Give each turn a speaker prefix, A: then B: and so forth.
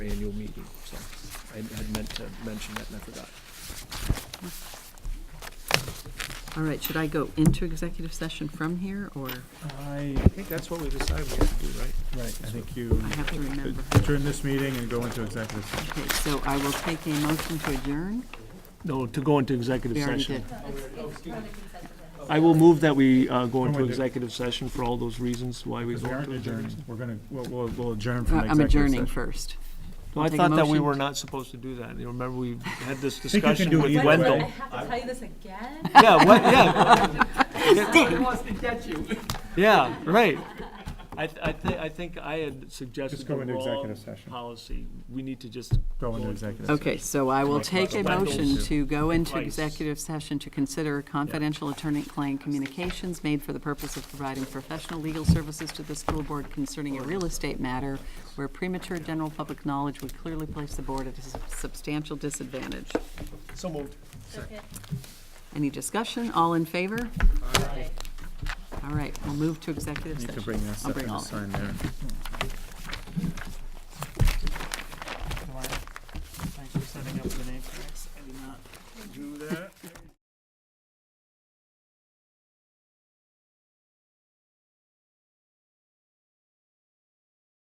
A: annual meeting, so I had meant to mention that and I forgot.
B: All right, should I go into executive session from here, or
C: I,
A: I think that's what we decided we have to do, right?
C: right, I think you
B: I have to remember?
C: adjourn this meeting and go into executive session.
B: Okay, so I will take a motion to adjourn.
D: No, to go into executive
B: We already
D: session.
B: did. Uh,
D: I will move that we uh, go into
C: wait, wait.
D: executive session for all those reasons why we
C: Because
D: go into
C: we aren't
D: executive.
C: adjourned, we're gonna, we'll- we'll, we'll adjourn
B: Uh,
C: from
B: I'm
C: executive
B: adjourning
C: session.
B: first.
D: No, I
B: Take a
D: thought that we
B: motion.
D: were not supposed to do that. You remember, we had this
C: you can do
D: discussion
C: it
D: with
C: either
D: Wendell.
E: I have to tell you this again?
D: Yeah, what, yeah. Yeah, right. I, th- I thi- I think I had suggested
C: Just
D: the
C: go into
D: wrong
C: executive session.
D: policy. We need to just.
C: Go into executive session.
B: Okay, so I will take a motion to go into
D: Twice.
B: executive session to consider confidential attorney-client communications made for the purpose of providing professional legal services to the school board concerning a real estate matter where premature general public knowledge would clearly place the board at a substantial disadvantage.
D: So moved.
B: Any discussion? All in favor? All right, we'll move to executive
C: You
B: session.
C: could bring that
B: I'll
C: stuff
B: bring
C: in
B: all
C: to
B: of it.
C: sign there.